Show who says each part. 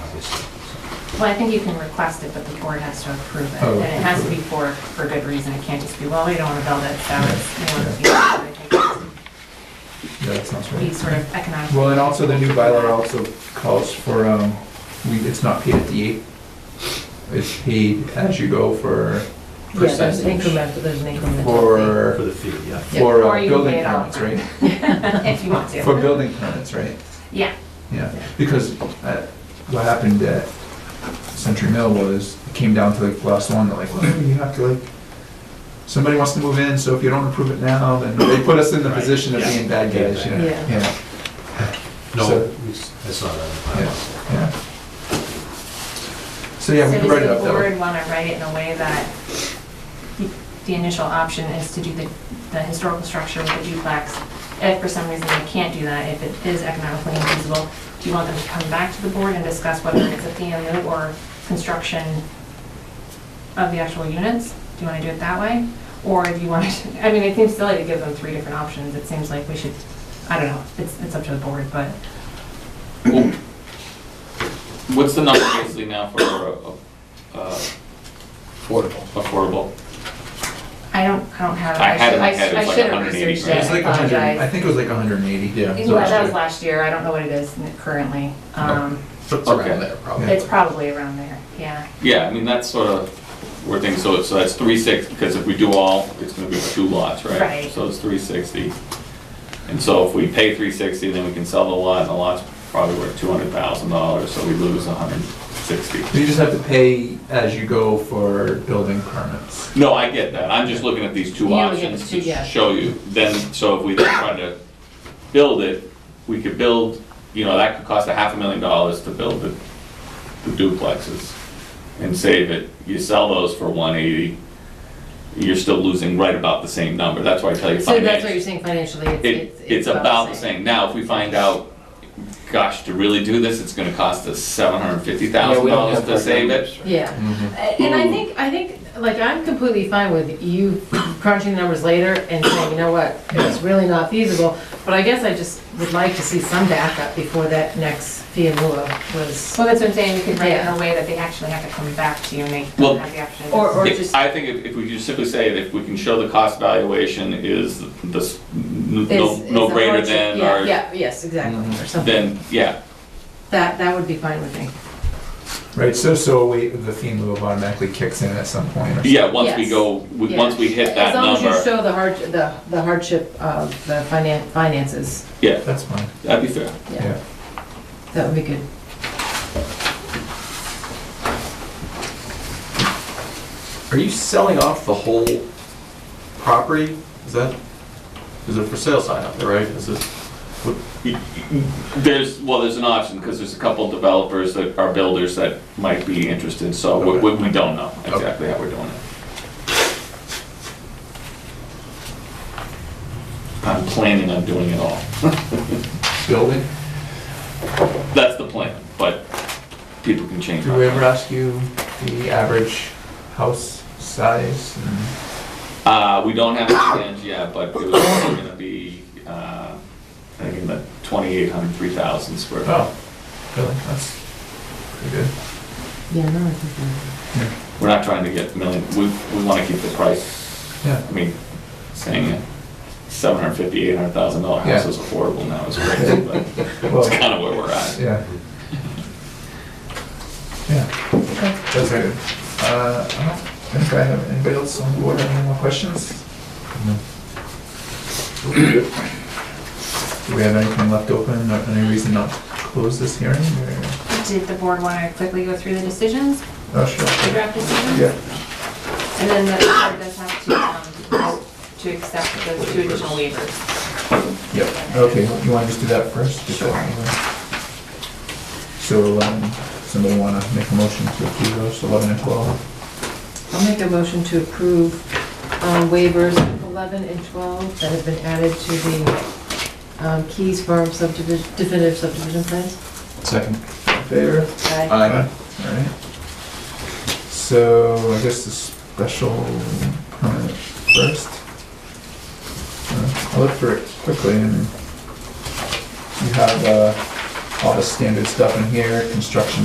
Speaker 1: Well, I think you can request it, but the board has to approve it.
Speaker 2: Oh,
Speaker 1: And it has to be
Speaker 2: approve.
Speaker 1: for, for good reason. It can't just be, well, we don't want to build it, so it's, you know, it's easier. I think
Speaker 2: Yeah, that sounds
Speaker 1: it's be
Speaker 2: right.
Speaker 1: sort of economic.
Speaker 2: Well, and also the new bylaw also calls for, um, we, it's not paid at the eight. It's paid as you go for
Speaker 3: Yeah, there's an
Speaker 2: percentage
Speaker 3: increment, there's an increment.
Speaker 2: for,
Speaker 4: For the fee, yeah.
Speaker 3: Yeah.
Speaker 2: for
Speaker 1: Or you can
Speaker 2: uh,
Speaker 1: pay
Speaker 2: building
Speaker 1: it all
Speaker 2: permits, right?
Speaker 1: If you want
Speaker 2: For
Speaker 1: to.
Speaker 2: building permits, right?
Speaker 1: Yeah,
Speaker 2: Yeah, because uh, what happened at Century Mill was, it came down to like last one, they're like, well, you have to like, somebody wants to move in, so if you don't approve it now, then they put us in the
Speaker 4: Right,
Speaker 2: position of
Speaker 4: yeah.
Speaker 2: being bad guys, you know?
Speaker 3: Yeah.
Speaker 2: Yeah,
Speaker 4: No,
Speaker 2: So-
Speaker 4: that's not on the
Speaker 2: yeah,
Speaker 4: bylaws.
Speaker 2: yeah. So yeah,
Speaker 1: so
Speaker 2: we
Speaker 1: does
Speaker 2: can write it
Speaker 1: the
Speaker 2: up though.
Speaker 1: board want to write it in a way that the- the initial option is to do the, the historical structure with the duplex? If for some reason they can't do that, if it is economically infeasible, do you want them to come back to the board and discuss whether it's a PMU or construction of the actual units? Do you want to do it that way? Or do you want to, I mean, it seems silly to give them three different options. It seems like we should, I don't know, it's, it's up to the board, but
Speaker 5: Well, What's the number basically now for, uh, uh,
Speaker 6: Affordable.
Speaker 5: affordable?
Speaker 1: I don't, I don't have. it.
Speaker 5: I had it in my
Speaker 1: should-
Speaker 5: head, it
Speaker 1: I
Speaker 5: was like
Speaker 1: should have
Speaker 5: 180
Speaker 1: researched
Speaker 2: It
Speaker 1: it.
Speaker 2: was like
Speaker 1: I
Speaker 2: 100, I
Speaker 1: apologize.
Speaker 2: think it was like 180.
Speaker 6: Yeah.
Speaker 1: Yeah, that was
Speaker 2: last
Speaker 1: last year, I don't know what it is currently. Um,
Speaker 6: It's
Speaker 5: Okay.
Speaker 6: around there, probably.
Speaker 1: It's probably around there, yeah.
Speaker 5: Yeah, I mean, that's sort of where things, so, so that's three six, because if we do all, it's gonna be two lots, right?
Speaker 1: Right.
Speaker 5: So it's three sixty. And so if we pay three sixty, then we can sell the lot, and the lot's probably worth two hundred thousand dollars, so we lose a hundred sixty.
Speaker 2: You just have to pay as you go for building permits.
Speaker 5: No, I get that, I'm just looking at these two
Speaker 3: Yeah, we get
Speaker 5: options
Speaker 3: the two, yeah.
Speaker 5: to show you, then, so if we then try to build it, we could build, you know, that could cost a half a million dollars to build the the duplexes and save it, you sell those for one eighty, you're still losing right about the same number, that's why I tell you
Speaker 3: So that's what you're
Speaker 5: finance.
Speaker 3: saying financially, it's,
Speaker 5: It,
Speaker 3: it's.
Speaker 5: it's about the same, now, if we find out, gosh, to really do this, it's gonna cost us seven hundred and fifty thousand dollars to save it.
Speaker 3: Yeah,
Speaker 5: Mm-hmm.
Speaker 3: A- and I think, I think, like, I'm completely fine with you crunching the numbers later and saying, you know what, it's really not feasible, but I guess I just would like to see some backup before that next FIAMULA was.
Speaker 1: So that's what I'm saying, you could write it in
Speaker 3: Yeah.
Speaker 1: a way that they actually have to come back to you and they
Speaker 5: Well,
Speaker 1: don't have the option.
Speaker 3: or-
Speaker 5: Yeah,
Speaker 3: just-
Speaker 5: I think if, if we just simply say that if we can show the cost valuation is this, n- no,
Speaker 3: is- is
Speaker 5: no greater
Speaker 3: approaching-
Speaker 5: than,
Speaker 3: yeah,
Speaker 5: or,
Speaker 3: Yeah, yes, exactly,
Speaker 2: Mm-hmm.
Speaker 3: or something,
Speaker 5: then, yeah.
Speaker 3: that, that would be fine with me.
Speaker 2: Right, so, so wait, the theme loop automatically kicks in at some point or
Speaker 5: Yeah, once we
Speaker 3: Yes.
Speaker 5: go, we- once we hit that
Speaker 3: As long as you
Speaker 5: number,
Speaker 3: show the hard, the, the hardship of the finan, finances,
Speaker 5: yeah,
Speaker 2: That's fine,
Speaker 5: that'd be fair.
Speaker 3: yeah,
Speaker 2: yeah.
Speaker 3: that would be good.
Speaker 6: Are you selling off the whole property? Is that, is it for sale sign up there, right? Is it?
Speaker 5: There's, well, there's an option, because there's a couple developers that are builders that might be interested, so we, we we don't know exactly how we're doing it. I'm planning on doing it all.
Speaker 2: Building?
Speaker 5: That's the plan, but people can change.
Speaker 2: Did we ever ask you the average house size? and-
Speaker 5: Uh, we don't have a plans yet, but it was probably gonna be, uh, I think in the 2,800, 3,000 square. foot.
Speaker 2: Oh, really, that's pretty good.
Speaker 3: Yeah, no, I think
Speaker 5: We're not trying to get million, we, we wanna keep the price,
Speaker 2: Yeah,
Speaker 5: I mean, saying it, 750, 800,000 dollar house
Speaker 2: Yeah.
Speaker 5: is affordable now is crazy, but
Speaker 2: well,
Speaker 5: that's kinda where we're at.
Speaker 2: yeah. Yeah, that's good. Uh, I don't think I have, anybody else on board have any more questions? Do we have anything left open, or any reason not to close this hearing, or?
Speaker 1: Did the board want to quickly go through the decisions,
Speaker 2: Oh,
Speaker 1: the
Speaker 2: sure.
Speaker 1: draft decisions?
Speaker 2: Yeah.
Speaker 1: And then the board does have to, um, vote to accept those two additional waivers.
Speaker 2: Yep, okay, you wanna just do that first? Just
Speaker 1: Sure.
Speaker 2: So, um, somebody wanna make a motion to approve those, eleven and twelve?
Speaker 3: I'll make a motion to approve um, waivers 11 and 12 that have been added to the um, Keys Farm subdivision, definitive subdivision plans.
Speaker 6: Second.
Speaker 2: In favor? Alright, so I guess the special permit first. Uh, I'll look for it quickly and you have, uh, all the standard stuff in here, construction